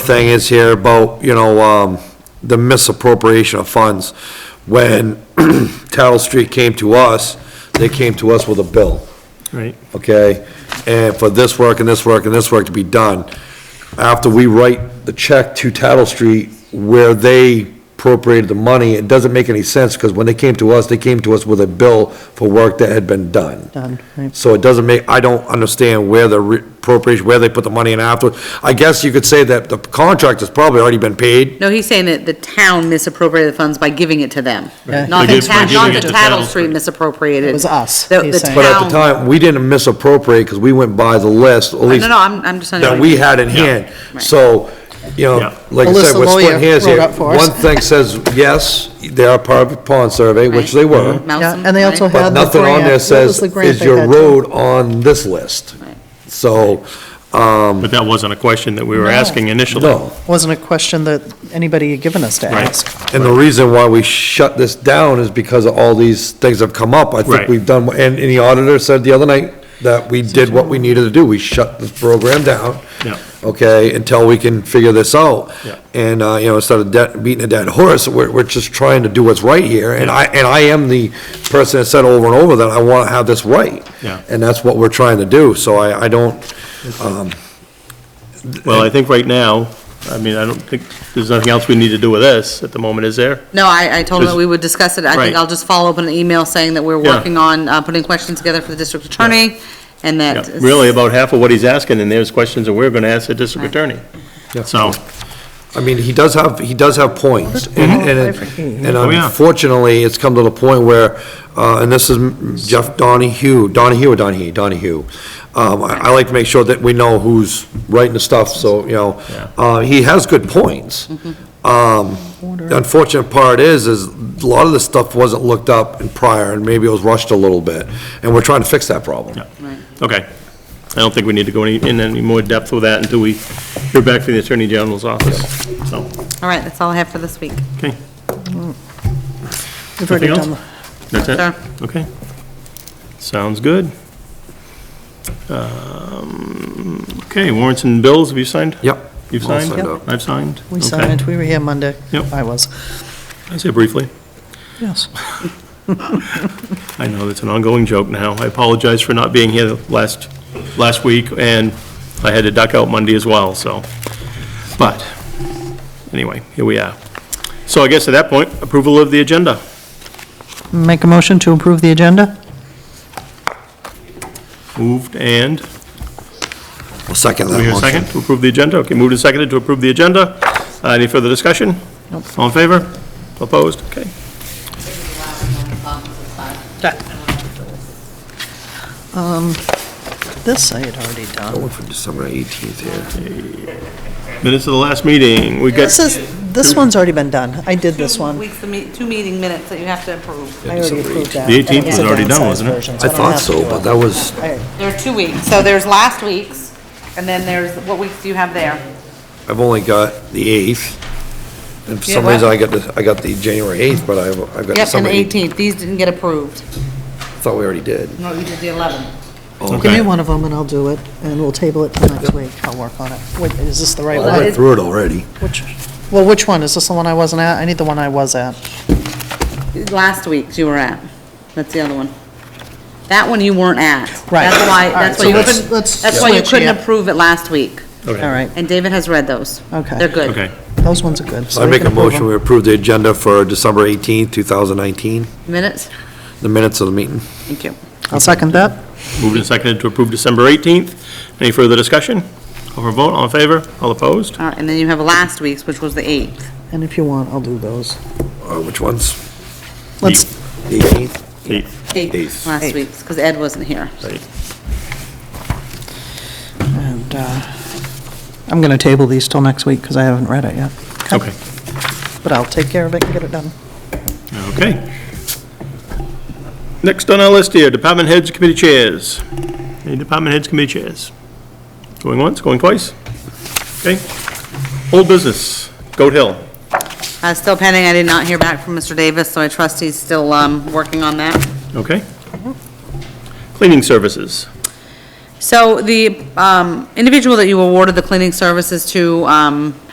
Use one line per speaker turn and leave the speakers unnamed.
thing is here about, you know, um, the misappropriation of funds. When Tattle Street came to us, they came to us with a bill,
Right,
okay? And for this work and this work and this work to be done. After we write the check to Tattle Street where they appropriated the money, it doesn't make any sense because when they came to us, they came to us with a bill for work that had been done.
Done, right.
So it doesn't make, I don't understand where the re- appropriation, where they put the money in afterward. I guess you could say that the contract has probably already been paid.
No, he's saying that the town misappropriated the funds by giving it to them.
Right.
Not
By
the
gi- by
town, not
giving
the
it to
Tattle
Tattle
Street
Street.
misappropriated.
It was us,
The,
he's
the
saying.
But at the
town.
time, we didn't misappropriate because we went by the list, at
No,
least
no, I'm, I'm just.
that we had in hand. So, you
Yeah.
know, like I said,
Alyssa
we're
Lawyer
splitting hairs here.
wrote up for us.
One thing says, yes, they are part of the pond survey, which they
Mm-hmm.
were,
Yeah, and they also
but
Had the
nothing on
grant. What
there
was
says,
the grant
is
they
your
had, too?
road on this list?
Right.
So,
but that wasn't a question that we were
No.
asking initially.
no.
Wasn't a question that anybody had given us to
Right.
ask.
And the reason why we shut this down is because of all these things have come up. I think
Right.
we've done, and, and the auditor said the other night that we did what we needed to do. We shut this program down.
Yeah.
Okay, until we can figure this out.
Yeah.
And, uh, you know, instead of de- beating a dead horse, we're, we're just trying to do what's right here. And I, and I am the person that said over and over that I want to have this right.
Yeah.
And that's what we're trying to do. So I, I don't, um,
Well, I think right now, I mean, I don't think, there's nothing else we need to do with this at the moment, is there?
No, I, I told him that
Just-
we would discuss it. I think
Right.
I'll just follow up on an email saying that we're
Yeah.
working on, uh, putting questions together for the district attorney and
Yeah,
that.
Really, about half of what he's asking, and there's questions that we're gonna ask the district attorney.
Yeah.
So,
I mean, he does have, he does have points, and, and and
Oh, yeah.
unfortunately, it's come to the point where, uh, and this is Jeff Donahue, Donahue or Donahue, Donahue. Um, I, I like to make sure that we know who's writing the stuff, so, you know,
Yeah.
uh, he has good points.
Mm-hmm.
Um, the unfortunate part is, is a lot of this stuff wasn't looked up in prior, and maybe it was rushed a little bit, and we're trying to fix that problem.
yeah, okay. I don't think we need to go any, in any more depth with that until we hear back from the Attorney General's office, so,
All right, that's all I have for this week.
okay.
We've already
Anything
done,
else? That's
Sure.
it? Okay. Sounds good. Um, Okay, warrants and bills, have you signed?
Yep.
You've
All
signed?
signed up.
I've signed?
we
Okay.
signed, we were here Monday.
Yep.
I was,
I say briefly.
yes.
I know that's an ongoing joke now. I apologize for not being here last, last week, and I had to duck out Monday as well, so. But, anyway, here we are. So I guess at that point, approval of the agenda.
Make a motion to approve the agenda?
Moved and,
I'll second
do
that
we hear a
motion.
second to approve the agenda? Okay, moved and seconded to approve the agenda. Uh, Any further discussion? All in favor? Opposed? Okay.
This I had already done.
For December eighteenth here.
Minutes of the last meeting, we got,
This is, this one's already been done. I did this one.
Weeks, two meeting minutes that you have to approve.
I already approved that.
The 18th
It's
was
a
already done,
downsized
wasn't it?
version,
I
don't
thought
have to
so,
do
but
it.
that was,
I-
There are two weeks. So there's last week's, and then there's, what weeks do you have there?
I've only got the eighth. And for some
Yeah, what?
reason, I got the, I got the January eighth, but I've, I've got
Yep, and
December
the
eighth.
18th. These didn't get approved.
Thought we already did.
No, you did the 11th.
Give me
okay.
one of them and I'll do it, and we'll table it till next week. I'll work on it. Wait, is this the right
I
one?
went through it already.
Which, well, which one? Is this the one I wasn't at? I need the one I was at.
Last week's you were at. That's the other one. That one you weren't at.
Right.
That's why,
All right,
that's why
so
you
let's-
couldn't,
let's
that's why you
switch
couldn't
here.
approve it last week.
Okay.
All right,
And David has read those.
Okay.
They're good.
Okay.
those ones are good. so
I
we
make
can
a
approve
motion, we approve the agenda for December eighteenth, two thousand nineteen,
Minutes?
the minutes of the meeting.
Thank you.
them. I'll second that.
Moved and seconded to approve December 18th. Any further discussion? Call for a vote, all in favor, all opposed?
All right, and then you have last week's, which was the 8th.
And if you want, I'll do those.
Uh, which ones?
Let's,
Eighteenth?
Eight.
Eighth.
Last week's, because Ed wasn't here.
Right.
and, uh, I'm going to table these till next week because I haven't read it yet.
Okay,
But I'll take care of it and get it done.
okay. Next on our list here, department heads, committee chairs. Any department heads, committee chairs? Going once, going twice? Okay. Old business, Goat Hill.
Uh, Still pending, I did not hear back from Mr. Davis, so I trust he's still um, working on that.
Okay. Cleaning services.
So the um, individual that you awarded the cleaning services to um,